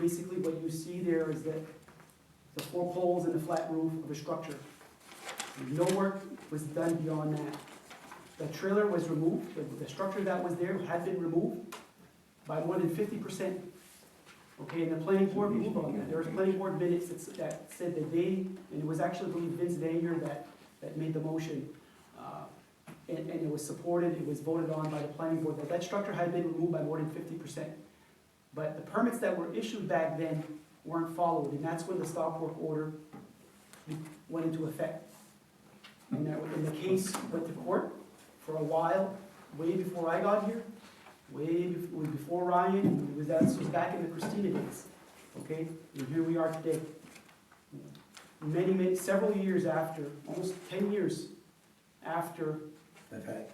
Basically, what you see there is that the four poles and the flat roof of a structure. No work was done beyond that. The trailer was removed, the- the structure that was there had been removed by more than fifty percent. Okay, and the planning board moved on that. There was planning board minutes that s- that said that they, and it was actually, I believe, Vince Vanier that, that made the motion. uh, And, and it was supported, it was voted on by the planning board, that that structure had been removed by more than fifty percent. But the permits that were issued back then weren't followed, and that's when the stop work order went into effect. And that, and the case went to court for a while, way before I got here, way bef- was before Ryan, it was, that was back in the Christina days, okay? And here we are today. Many, many, several years after, almost ten years after Okay.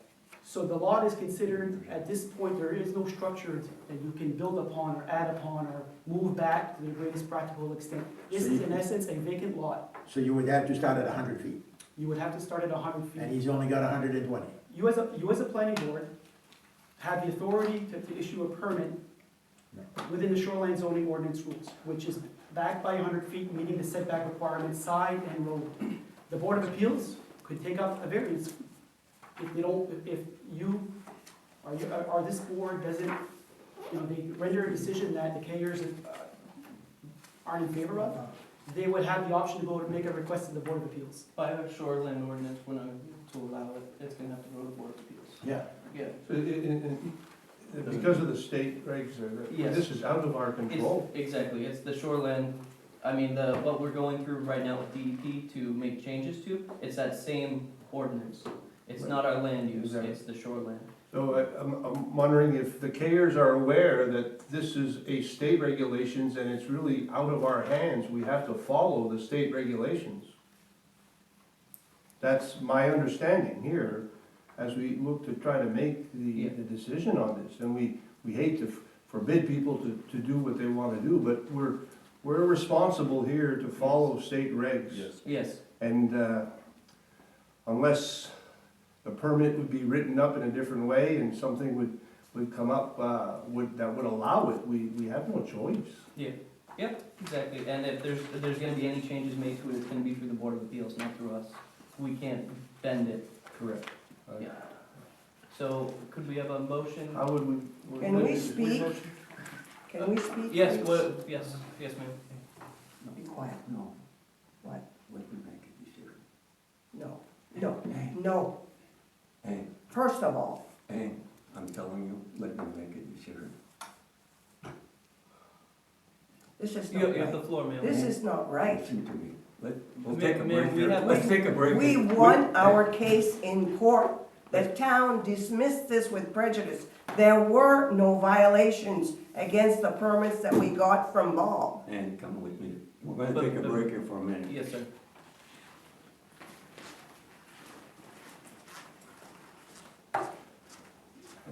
so the lot is considered, at this point, there is no structure that you can build upon or add upon or move back to the greatest practical extent. This is in essence a vacant lot. So you would have to start at hundred feet, You would have to start at hundred and feet. he's only got hundred and twenty. You as a, you as a planning board have the authority to, to issue a permit within the shoreline zoning ordinance rules, which is backed by hundred feet, meeting the setback requirements, side and road. The Board of Appeals could take up a variance if they don't, if if you, or you, or- or this board doesn't, you know, they render a decision that the Kayers uh, aren't in favor of, they would have the option to go and make a request to the Board of Appeals. By our shoreline ordinance, when I, to allow it, it's gonna have to go to Board of Appeals. Yeah. Yeah, So it- it- it- it- Because of the state regs, uh, Yes. this is out of our it's, control. exactly, it's the shoreline, I mean, the, what we're going through right now with DEP to make changes to, it's that same ordinance. It's not our land use, Exactly. it's the shoreline. So I- I'm I'm wondering if the Kayers are aware that this is a state regulations and it's really out of our hands. We have to follow the state regulations. That's my understanding here, as we look to try to make the, Yeah. the decision on this. And we, we hate to f- forbid people to, to do what they want to do, but we're, we're responsible here to follow state regs. Yes, And uh, unless the permit would be written up in a different way and something would, would come up, uh, would, that would allow it, we, we have no choice. exactly, and if there's, if there's gonna be any changes made to it, it's gonna be through the Board of Appeals, not through us. We can't bend it. Correct. Yeah. So, could we have a motion? How would we? would- Can we would- speak? Can we speak? Yes, please? what, yes, yes, ma'am. Be quiet. No. What? Let me make a decision. No, no, no. Hey. First of all, Hey, I'm telling you, let me make a decision. this is You have, not you have right. the floor, ma'am. This is not right. Listen to me. Let, we'll Ma- take a ma'am, break we here. have- Let's take a break. We won our case in court. The town dismissed this with prejudice. There were no violations against the permits that we got from Ball. And come with me. We're gonna But- take a but- break here for a minute. Yes, sir. Are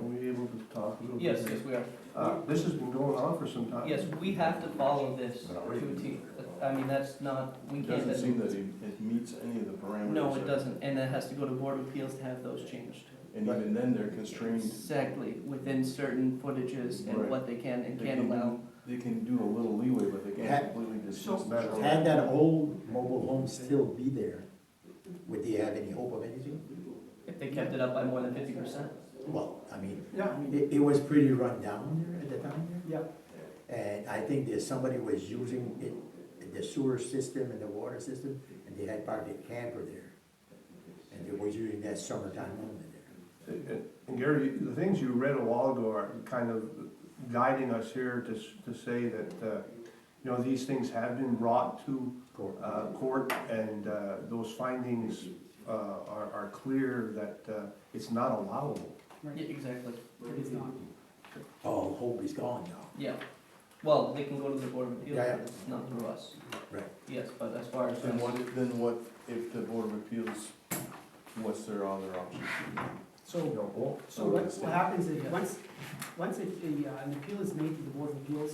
we able to talk a little bit? Yes, yes, we are. Uh, This has been going on for some time. Yes, we have to follow this to a T. I mean, that's not, we It can't. doesn't seem that it it meets any of the parameters. No, of- it doesn't, and it has to go to Board of Appeals to have those changed. And even then, they're constrained, Exactly, within certain footages and Right. what they can and They can't can- allow. they can do a little leeway, but they Had- can't completely so- dismiss the shoreline. Had that old mobile home still be there, would they have any hope of anything? If they kept it up by more than fifty percent. Well, I mean, Yeah, I mean, it, it was pretty run down there at the time. yeah. And I think that somebody was using it, the sewer system and the water system, and they had parked a camper there. And they were using that summertime only there. And Gary, the things you read a while ago are kind of guiding us here to, s- to say that, uh, you know, these things have been brought to Court. uh, court, and uh, those findings uh, are are clear that uh, it's not allowable. Yeah, exactly. It is not. All hope is Oh, gone now. Yeah. Well, they can go to the Board of Appeals, Yeah, yeah. but it's not through us. Right. Yes, but as far as. Then what, then what if the Board of Appeals, what's their other option? You So, know, well, so what, what happens is, once, once it, the, uh, an appeal is made to the Board of Appeals,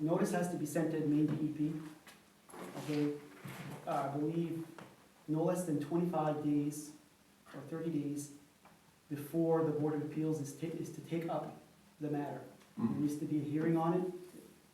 notice has to be sent to the main DEP, okay? Uh, I believe no less than twenty-five days or thirty days before the Board of Appeals is ta, is to take up the matter. There Mhm. needs to be a hearing on it,